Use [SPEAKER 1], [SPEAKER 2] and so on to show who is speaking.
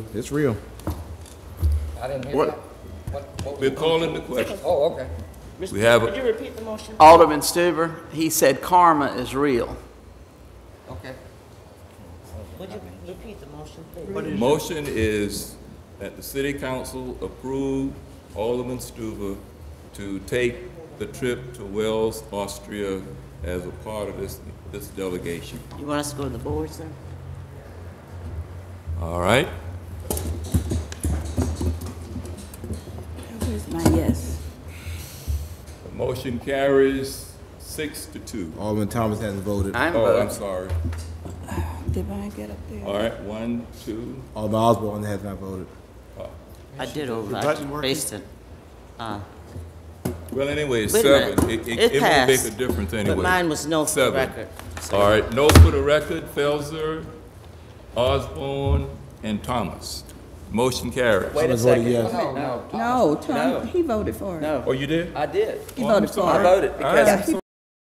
[SPEAKER 1] It's real.
[SPEAKER 2] I didn't hear
[SPEAKER 3] What?
[SPEAKER 2] that. What? what was-
[SPEAKER 4] We're calling the question.
[SPEAKER 2] Oh, okay.
[SPEAKER 5] Mr.
[SPEAKER 4] We have a-
[SPEAKER 5] Would you repeat the motion?
[SPEAKER 6] Alderman Stuber, he said karma is real.
[SPEAKER 2] Okay.
[SPEAKER 5] Would you repeat the motion, please?
[SPEAKER 4] Motion is that the city council approve Alderman Stuber to take the trip to Wells, Austria as a part of this, this delegation.
[SPEAKER 5] You want us to go to the boards then?
[SPEAKER 4] All right?
[SPEAKER 7] Where's my yes?
[SPEAKER 4] The motion carries six to two.
[SPEAKER 1] Alderman Thomas hasn't voted.
[SPEAKER 6] I'm
[SPEAKER 4] Oh, I'm
[SPEAKER 6] voting.
[SPEAKER 4] sorry.
[SPEAKER 7] Did I get up there?
[SPEAKER 4] All right, one, two.
[SPEAKER 1] Alderman Osborne has not voted.
[SPEAKER 5] I did over, I
[SPEAKER 8] button
[SPEAKER 5] just
[SPEAKER 8] working?
[SPEAKER 5] based it. Uh,
[SPEAKER 4] Well, anyway,
[SPEAKER 5] Wait a minute.
[SPEAKER 4] seven. It, it,
[SPEAKER 5] It
[SPEAKER 4] it won't make
[SPEAKER 5] passed.
[SPEAKER 4] a difference anyway.
[SPEAKER 5] But mine was no for the
[SPEAKER 4] Seven.
[SPEAKER 5] record. So-
[SPEAKER 4] All right, no for the record, Felser, Osborne, and Thomas. Motion carries.
[SPEAKER 8] Wait a
[SPEAKER 1] Thomas voted
[SPEAKER 8] second.
[SPEAKER 1] yes.
[SPEAKER 8] No,
[SPEAKER 7] No, Tom,
[SPEAKER 8] No.
[SPEAKER 7] he voted for it.
[SPEAKER 8] Oh, no,
[SPEAKER 4] Oh, you did?
[SPEAKER 8] I did.
[SPEAKER 7] He
[SPEAKER 4] Oh, I'm
[SPEAKER 7] voted for
[SPEAKER 4] sorry.
[SPEAKER 7] it.
[SPEAKER 8] I voted
[SPEAKER 4] All right,
[SPEAKER 7] Yeah,
[SPEAKER 4] I'm
[SPEAKER 7] he